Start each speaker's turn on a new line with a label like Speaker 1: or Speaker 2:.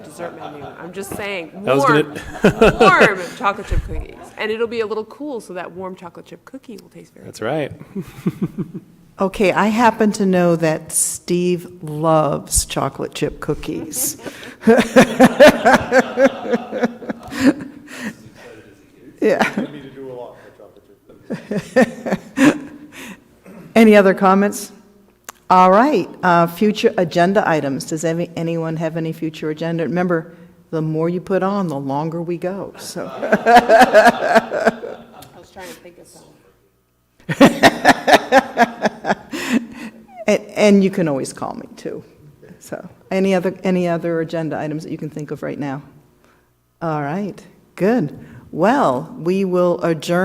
Speaker 1: dessert menu. I'm just saying,
Speaker 2: That was
Speaker 1: warm,
Speaker 2: gonna-
Speaker 1: warm chocolate chip cookies. And it'll be a little cool, so that warm chocolate chip cookie will taste very good.
Speaker 2: That's right.
Speaker 3: Okay, I happen to know that Steve loves chocolate chip cookies. Yeah.
Speaker 4: I need to do a lot for chocolate chip.
Speaker 3: Any other comments? All right, uh, future agenda items. Does any, anyone have any future agenda? Remember, the more you put on, the longer we go, so.
Speaker 1: I was trying to think of something.
Speaker 3: And, and you can always call me, too. So, any other, any other agenda items that you can think of right now? All right, good. Well, we will adjourn.